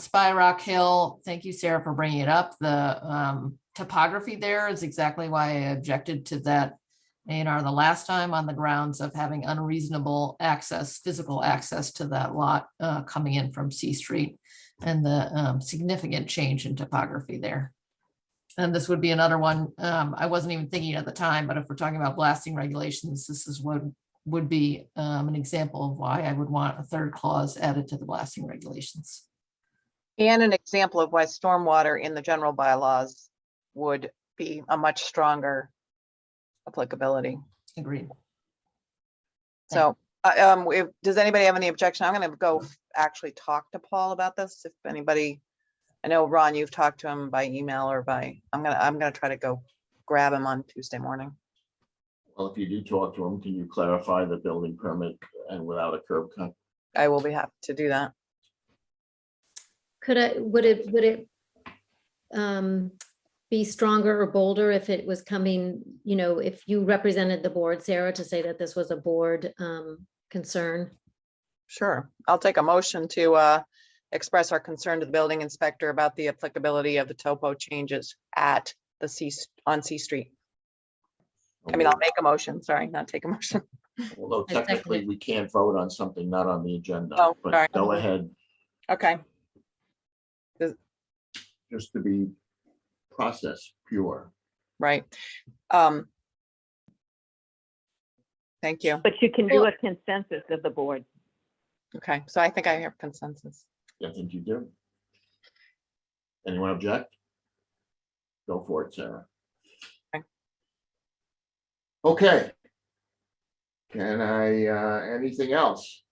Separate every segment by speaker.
Speaker 1: Spy Rock Hill, thank you, Sarah, for bringing it up. The um, topography there is exactly why I objected to that A and R the last time on the grounds of having unreasonable access, physical access to that lot uh, coming in from C Street and the um, significant change in topography there. And this would be another one, um, I wasn't even thinking at the time, but if we're talking about blasting regulations, this is what would be um, an example of why I would want a third clause added to the blasting regulations.
Speaker 2: And an example of why stormwater in the general bylaws would be a much stronger applicability.
Speaker 1: Agreed.
Speaker 2: So, uh, um, if, does anybody have any objection? I'm gonna go f- actually talk to Paul about this, if anybody. I know, Ron, you've talked to him by email or by, I'm gonna, I'm gonna try to go grab him on Tuesday morning.
Speaker 3: Well, if you do talk to them, can you clarify the building permit and without a curb cut?
Speaker 2: I will be happy to do that.
Speaker 4: Could I, would it, would it um, be stronger or bolder if it was coming, you know, if you represented the board, Sarah, to say that this was a board um, concern?
Speaker 2: Sure, I'll take a motion to, uh, express our concern to the building inspector about the applicability of the topo changes at the C, on C Street. I mean, I'll make a motion, sorry, not take a motion.
Speaker 3: Although
Speaker 4: I second
Speaker 3: technically,
Speaker 4: it.
Speaker 3: we can't vote on something not on the agenda,
Speaker 2: Oh, sorry.
Speaker 3: but go ahead,
Speaker 2: Okay,
Speaker 3: just to be process pure.
Speaker 2: right. Um. Thank you.
Speaker 5: But you can do a consensus of the board.
Speaker 2: Okay, so I think I have consensus.
Speaker 3: I think you do. Anyone object? Go for it, Sarah.
Speaker 2: Okay.
Speaker 3: Okay. Can I, uh, anything else?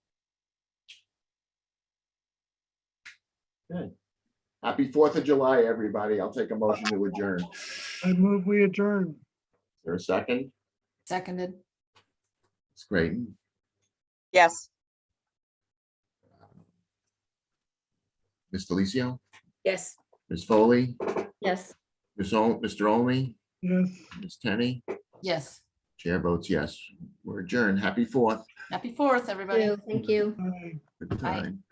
Speaker 3: Good. Happy Fourth of July, everybody. I'll take a motion to adjourn.
Speaker 6: I move we adjourn.
Speaker 3: There a second?
Speaker 1: Seconded.
Speaker 3: It's great.
Speaker 2: Yes,
Speaker 3: Ms. Delicio,
Speaker 7: Yes.
Speaker 3: Ms. Foley,
Speaker 4: Yes.
Speaker 3: Ms. Ol- Mr. Olney,
Speaker 6: Yes.
Speaker 3: Ms. Tenny,
Speaker 1: Yes.
Speaker 3: chair votes yes. We're adjourned. Happy Fourth.
Speaker 1: Happy Fourth, everybody.
Speaker 4: Thank you.
Speaker 6: Aye.
Speaker 3: Good
Speaker 1: Aye.
Speaker 3: time.